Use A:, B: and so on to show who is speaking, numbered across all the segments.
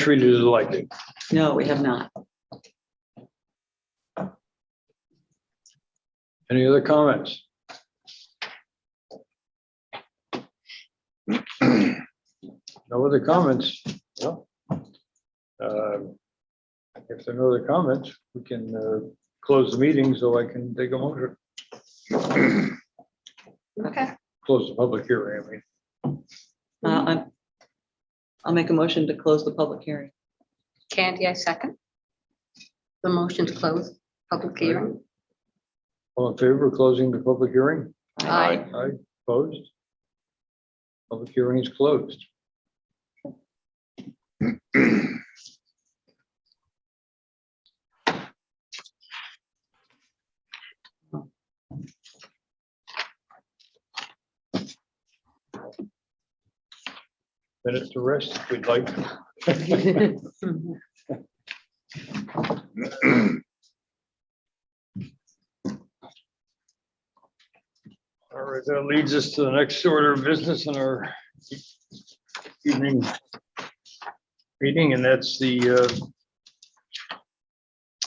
A: treated as elected.
B: No, we have not. Uh,
A: Any other comments? No other comments? Well, um, If there are no other comments, we can uh, close the meeting so I can take a motion,
C: Okay,
A: close the public hearing. I mean,
B: Uh,
D: Mm-hmm.
B: I'm- I'll make a motion to close the public hearing.
C: Candy, I second. The motion to close public hearing.
A: all in favor of closing the public hearing?
C: Aye.
A: Aye, opposed? Public hearing is closed. Minutes to rest, if we'd like. All right, that leads us to the next order of business in our evening meeting, and that's the uh,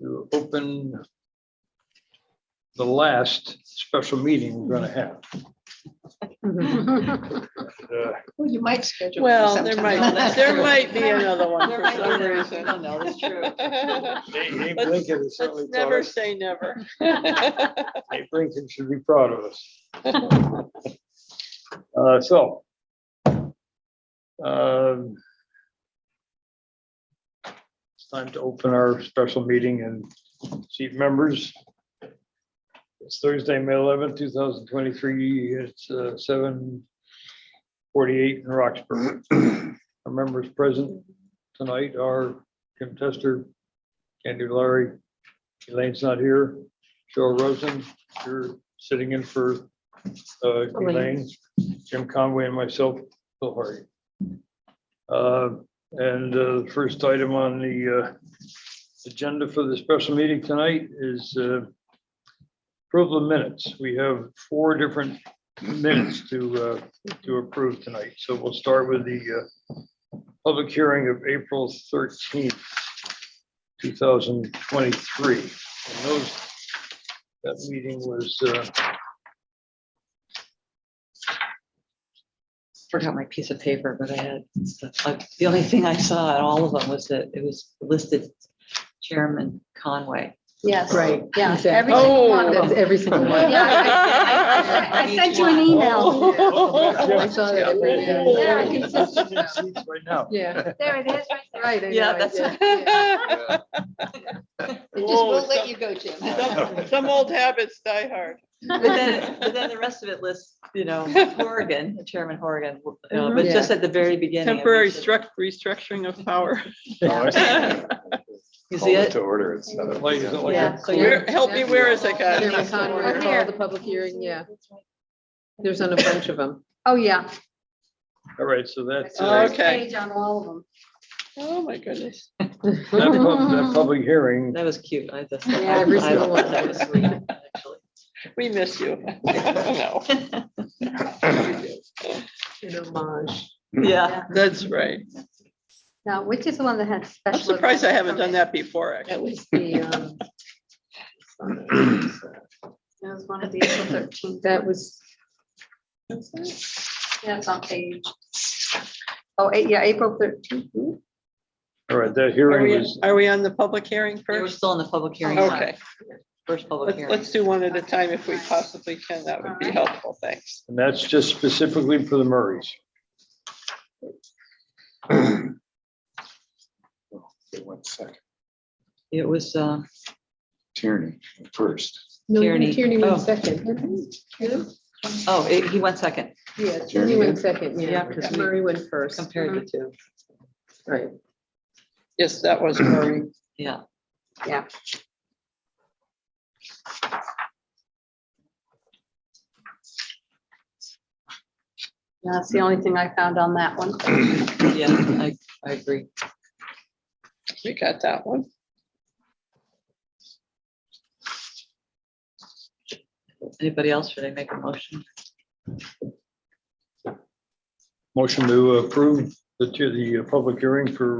A: to open the last special meeting we're gonna have.
D: Mm-hmm.
A: Uh,
C: Well, you might schedule.
E: Well, there
B: No,
E: might,
B: that's
E: there
B: true.
E: might be another one
B: There
E: for
B: might be
E: some
B: another-
E: reason.
B: no, no, that's true.
A: Dave- Dave
E: Let's-
A: Lincoln has certainly
E: Let's
A: taught
E: never
A: us-
E: say never.
A: Dave Lincoln should be proud of us. Uh, So. um, It's time to open our special meeting and seat members. It's Thursday, May eleventh, two thousand twenty-three. It's uh, seven forty-eight in Roxbury. Our members present tonight are Kim Tester, Candy Larry, Elaine's not here, Joe Rosen, you're sitting in for uh, Elaine, Jim Conway and myself, Bill Hardy. Uh, And uh, the first item on the uh, agenda for the special meeting tonight is uh, approval of minutes. We have four different minutes to, uh, to approve tonight. So we'll start with the uh, public hearing of April 13th, 2023. And those that meeting was, uh,
B: Forgot my piece of paper, but I had, like, the only thing I saw in all of them was that it was listed Chairman Conway.
C: Yes.
D: Right.
C: Yeah,
D: exactly.
C: every single
B: Oh.
C: one of them.
D: That's every single one.
C: Yeah, I- I I- I sent you an email.
E: Oh,
D: I saw that every
C: Yeah, I
D: day.
C: can just-
A: Right now.
D: Yeah,
C: There it is, right there.
D: right. I
B: Yeah,
D: know, I
B: that's-
C: It
D: did.
C: just won't let you go, Jim.
E: Some- Some old habits die hard.
B: But then, but then the rest of it lists, you know, Horgan, Chairman Horgan, you
D: Mm-hmm.
B: know, but just at the very beginning. it
E: Temporary
B: mentioned-
E: struct, restructuring of power.
B: You
F: Oh, Call
B: see
F: it
B: it?
F: to order. It's not a-
A: Like, is it like a-
D: Yeah, so
E: Where-
D: you're-
E: help me, where is it, guys?
D: Chairman Conway
C: Here.
D: called the public hearing, yeah. There's on a bunch of them.
C: Oh, yeah.
A: All right, so that's, uh,
C: First
E: Okay.
C: page on all of them.
E: Oh, my goodness.
A: that pub- that public hearing,
B: That was cute. I just.
D: Yeah, every
B: I- I
D: single one.
B: thought That was sweet, actually.
E: We miss you. No,
D: An homage.
B: Yeah.
E: That's right.
C: Now, which is the one that had special?
E: I'm surprised I haven't done that before, actually.
D: That was the, um,
C: It was one of the April thirteenth.
D: that was,
C: Yeah, it's on page. Oh, eight- yeah, April thirteenth.
A: all right, that
E: Are
A: hearing
E: we,
A: was,
E: are we on the public hearing
B: We were
E: first?
B: still in the public hearing. time,
E: Okay,
B: First public
E: let's,
B: hearing.
E: let's do one at a time if we possibly can. That would be helpful. Thanks.
A: and that's just specifically for the Murrays.
F: Okay, One second.
B: It was, uh,
F: Tierney first.
D: no,
B: Tierney.
D: Tierney
B: Oh.
D: went second.
B: oh, it- he went second.
D: Yeah,
F: Tierney
D: Tierney went second,
B: Yeah,
D: yeah.
B: 'cause we
D: Murray went first. Uh-huh.
B: Compared the two.
D: Right.
E: Yes, that was Murray.
B: Yeah.
C: Yeah. That's the only thing I found on that one.
B: Yeah, I, I agree.
E: We got that one.
B: Anybody else? Should I make a motion?
A: Motion to approve the, to the uh, public hearing for